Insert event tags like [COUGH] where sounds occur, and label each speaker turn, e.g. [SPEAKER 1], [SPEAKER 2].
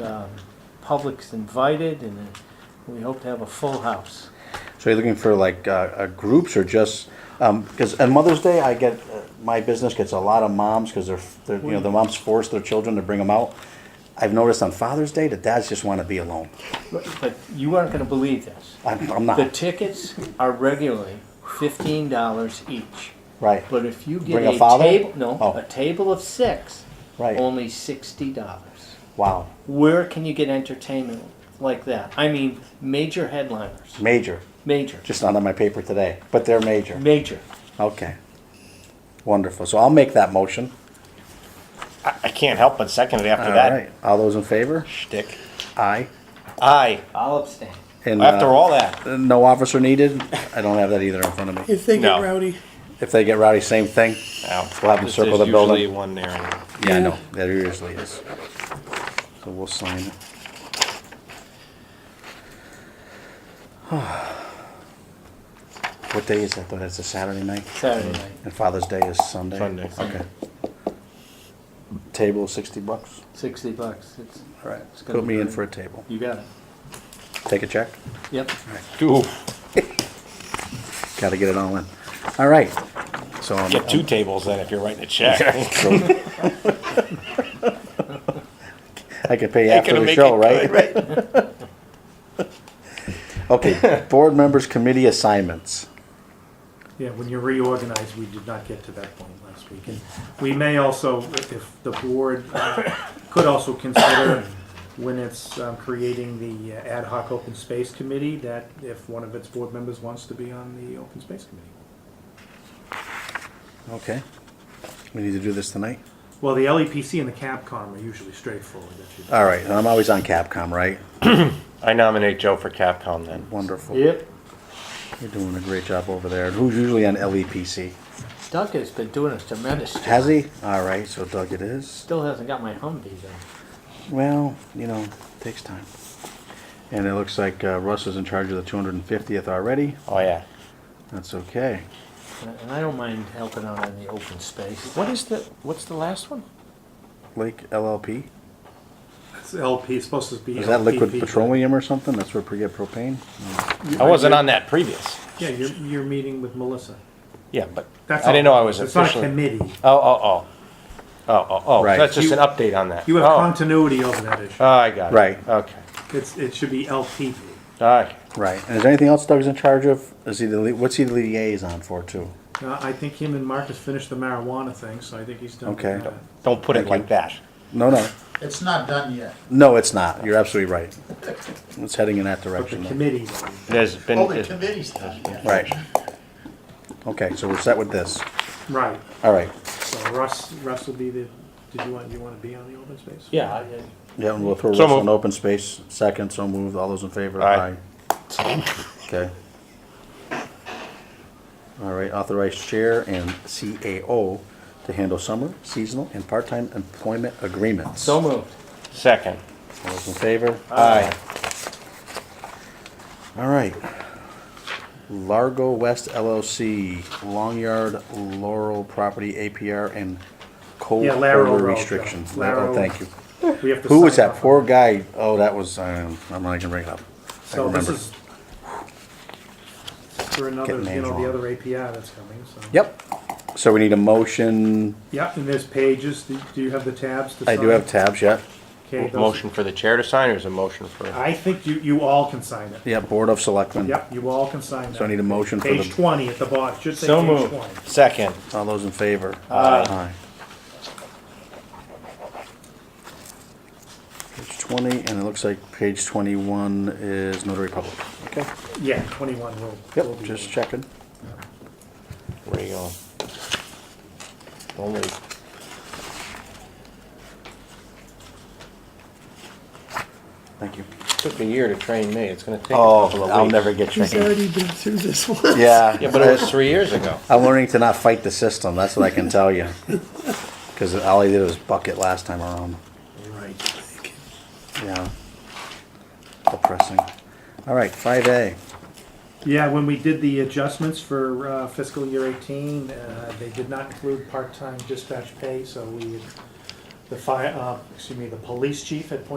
[SPEAKER 1] uh, public's invited, and uh, we hope to have a full house.
[SPEAKER 2] So you're looking for like uh, uh, groups or just because on Mother's Day I get uh, my business gets a lot of moms because they're, they're you know the moms force their children to bring them out. I've noticed on Father's Day the dads just want to be alone.
[SPEAKER 1] But but you aren't gonna believe this.
[SPEAKER 2] I'm, I'm
[SPEAKER 1] The
[SPEAKER 2] not
[SPEAKER 1] tickets are regularly fifteen dollars each.
[SPEAKER 2] right.
[SPEAKER 1] But if you get
[SPEAKER 2] Bring a
[SPEAKER 1] a
[SPEAKER 2] father?
[SPEAKER 1] table, no,
[SPEAKER 2] Oh.
[SPEAKER 1] a table of six,
[SPEAKER 2] Right.
[SPEAKER 1] only sixty dollars.
[SPEAKER 2] Wow,
[SPEAKER 1] Where can you get entertainment like that? I mean, major headliners,
[SPEAKER 2] major.
[SPEAKER 1] major,
[SPEAKER 2] Just not on my paper today, but they're major.
[SPEAKER 1] major.
[SPEAKER 2] Okay, wonderful. So I'll make that motion.
[SPEAKER 3] I, I can't help but second it after
[SPEAKER 2] All
[SPEAKER 3] that
[SPEAKER 2] right. All those in favor?
[SPEAKER 3] shtick.
[SPEAKER 2] Aye.
[SPEAKER 3] Aye.
[SPEAKER 1] I'll abstain.
[SPEAKER 2] And
[SPEAKER 3] After
[SPEAKER 2] uh,
[SPEAKER 3] all that,
[SPEAKER 2] no officer needed. I don't have that either in front of me.
[SPEAKER 4] If they get
[SPEAKER 3] No.
[SPEAKER 4] rowdy,
[SPEAKER 2] If they get rowdy, same thing.
[SPEAKER 3] Ow.
[SPEAKER 2] We'll have them
[SPEAKER 3] There's-
[SPEAKER 2] circle
[SPEAKER 3] there's
[SPEAKER 2] the building.
[SPEAKER 3] Usually one there.
[SPEAKER 2] Yeah, I
[SPEAKER 4] Yeah.
[SPEAKER 2] know, that usually is. So we'll sign it. [SIGHS] What day is that, though? That's a Saturday night?
[SPEAKER 1] Saturday night.
[SPEAKER 2] And Father's Day is Sunday?
[SPEAKER 3] Sunday.
[SPEAKER 2] Okay. Table, sixty bucks?
[SPEAKER 1] Sixty bucks. It's,
[SPEAKER 2] All right,
[SPEAKER 1] gonna
[SPEAKER 2] put
[SPEAKER 1] be
[SPEAKER 2] me in
[SPEAKER 1] good.
[SPEAKER 2] for a table.
[SPEAKER 1] you got it.
[SPEAKER 2] Take a check?
[SPEAKER 1] Yep.
[SPEAKER 3] Ooh,
[SPEAKER 2] Gotta get it all in. All right, so. I'm-
[SPEAKER 3] get two tables then if [LAUGHS] you're writing a check.
[SPEAKER 2] So- [LAUGHS] I could pay
[SPEAKER 3] Ain't
[SPEAKER 2] after
[SPEAKER 3] gonna
[SPEAKER 2] the
[SPEAKER 3] make
[SPEAKER 2] show,
[SPEAKER 3] it
[SPEAKER 2] right?
[SPEAKER 3] good,
[SPEAKER 2] [LAUGHS]
[SPEAKER 3] [LAUGHS]
[SPEAKER 2] Okay, board members' committee assignments.
[SPEAKER 5] Yeah, when you reorganize, we did not get to that point last week. And we may also, if the board uh, could also consider when it's um, creating the uh, ad hoc open space committee, that if one of its board members wants to be on the open space committee.
[SPEAKER 2] Okay. We need to do this tonight?
[SPEAKER 5] Well, the LEPC and the CAPCOM are usually straightforward. that you-
[SPEAKER 2] All right, and I'm always on Capcom, right?
[SPEAKER 3] I nominate Joe for Capcom then.
[SPEAKER 2] Wonderful.
[SPEAKER 1] Yep.
[SPEAKER 2] You're doing a great job over there. And Who's usually on LEPC?
[SPEAKER 1] Doug has been doing us tremendous. job.
[SPEAKER 2] Has he? All right, so Doug it is.
[SPEAKER 1] Still hasn't got my Humvee though.
[SPEAKER 2] Well, you know, takes time. And it looks like uh, Russ is in charge of the 250th already.
[SPEAKER 3] Oh yeah.
[SPEAKER 2] That's okay.
[SPEAKER 1] And I don't mind helping out on the open space.
[SPEAKER 3] What is the? What's the last one?
[SPEAKER 2] Lake LLP?
[SPEAKER 5] It's LP, it's supposed to be.
[SPEAKER 2] Is that liquid
[SPEAKER 5] LPP, but-
[SPEAKER 2] petroleum or something? That's where we get propane?
[SPEAKER 3] I wasn't on that previous.
[SPEAKER 5] Yeah, you're, you're meeting with Melissa.
[SPEAKER 3] Yeah, but
[SPEAKER 5] That's
[SPEAKER 3] I didn't know
[SPEAKER 5] all.
[SPEAKER 3] I was
[SPEAKER 5] It's not a
[SPEAKER 3] officially.
[SPEAKER 5] committee.
[SPEAKER 3] Oh oh oh. Oh oh oh.
[SPEAKER 2] Right.
[SPEAKER 3] That's just
[SPEAKER 5] You-
[SPEAKER 3] an update on that.
[SPEAKER 5] You have
[SPEAKER 3] oh.
[SPEAKER 5] continuity over that issue.
[SPEAKER 3] oh, I got it.
[SPEAKER 2] Right.
[SPEAKER 3] Okay.
[SPEAKER 5] It's, it should be LPP.
[SPEAKER 3] All right.
[SPEAKER 2] Right. And is there anything else Doug's in charge of? Is he the, li- what's he the liaison for too?
[SPEAKER 5] Uh, I think him and Marcus finished the marijuana thing, so I think he's done with
[SPEAKER 2] Okay.
[SPEAKER 5] that.
[SPEAKER 3] Don't put
[SPEAKER 2] Thank
[SPEAKER 3] it
[SPEAKER 2] you.
[SPEAKER 3] like that.
[SPEAKER 2] No, no.
[SPEAKER 6] It's not done yet.
[SPEAKER 2] No, it's not. You're absolutely right. It's heading in that
[SPEAKER 5] But the
[SPEAKER 2] direction. though.
[SPEAKER 5] committee,
[SPEAKER 3] There's been.
[SPEAKER 6] Well, the committee's done yet.
[SPEAKER 2] Right. Okay, so we're set with this.
[SPEAKER 5] right,
[SPEAKER 2] All right.
[SPEAKER 5] so Russ, Russ will be the, did you want, you want to be on the open space?
[SPEAKER 1] Yeah. I-
[SPEAKER 2] Yeah, and we'll throw
[SPEAKER 3] So
[SPEAKER 2] Russell in
[SPEAKER 3] moved.
[SPEAKER 2] open space. Second, so moved. All those in favor?
[SPEAKER 3] Aye.
[SPEAKER 2] Okay. All right, authorized chair and CAO to handle summer, seasonal, and part-time employment agreements.
[SPEAKER 1] So moved.
[SPEAKER 3] second.
[SPEAKER 2] All those in favor?
[SPEAKER 3] Aye.
[SPEAKER 2] All right. Largo West LLC, Long Yard Laurel Property APR and cold
[SPEAKER 5] Yeah, Laurel
[SPEAKER 2] order
[SPEAKER 5] Road,
[SPEAKER 2] restrictions.
[SPEAKER 5] yeah.
[SPEAKER 2] Laurel,
[SPEAKER 5] Laurel.
[SPEAKER 2] thank you.
[SPEAKER 5] We have to
[SPEAKER 2] Who was
[SPEAKER 5] sign
[SPEAKER 2] that
[SPEAKER 5] off.
[SPEAKER 2] poor guy? Oh, that was, um, I'm not gonna bring it up. I
[SPEAKER 5] So this
[SPEAKER 2] remember.
[SPEAKER 5] is for another,
[SPEAKER 2] Getting
[SPEAKER 5] you
[SPEAKER 2] names
[SPEAKER 5] know,
[SPEAKER 2] wrong.
[SPEAKER 5] the other API that's coming, so.
[SPEAKER 2] Yep. So we need a motion.
[SPEAKER 5] Yeah, and there's pages, do do you have the tabs to
[SPEAKER 2] I do
[SPEAKER 5] sign?
[SPEAKER 2] have tabs, yeah.
[SPEAKER 5] Okay, those,
[SPEAKER 3] Motion for the chair to sign, or is it motion for?
[SPEAKER 5] I think you, you all can sign it.
[SPEAKER 2] Yeah, Board of Selectmen.
[SPEAKER 5] Yep, you all can sign that.
[SPEAKER 2] So I need a motion for
[SPEAKER 5] Page
[SPEAKER 2] the,
[SPEAKER 5] twenty at the bottom, should say
[SPEAKER 1] So
[SPEAKER 5] page
[SPEAKER 1] moved.
[SPEAKER 5] twenty.
[SPEAKER 3] Second.
[SPEAKER 2] all those in favor? Aye. Page twenty, and it looks like page twenty-one is notary public. Okay.
[SPEAKER 5] Yeah, twenty-one will, will
[SPEAKER 2] Yep,
[SPEAKER 5] be.
[SPEAKER 2] just checking.
[SPEAKER 3] Where you going? Don't leave.
[SPEAKER 2] Thank you.
[SPEAKER 3] Took a year to train me. It's gonna take a couple
[SPEAKER 2] Oh,
[SPEAKER 3] of
[SPEAKER 2] I'll
[SPEAKER 3] weeks.
[SPEAKER 2] never get
[SPEAKER 4] he's
[SPEAKER 2] trained.
[SPEAKER 4] already been through this one.
[SPEAKER 2] Yeah.
[SPEAKER 3] Yeah, but it was three years ago.
[SPEAKER 2] I'm learning to not fight the system, that's what I can tell you. Cause all I did was bucket last time around.
[SPEAKER 4] Right.
[SPEAKER 2] Yeah. Depressing. All right, five A.
[SPEAKER 5] Yeah, when we did the adjustments for uh, fiscal year 18, uh, they did not include uh, part-time dispatch pay, so we, the fire, excuse me, the police chief had pointed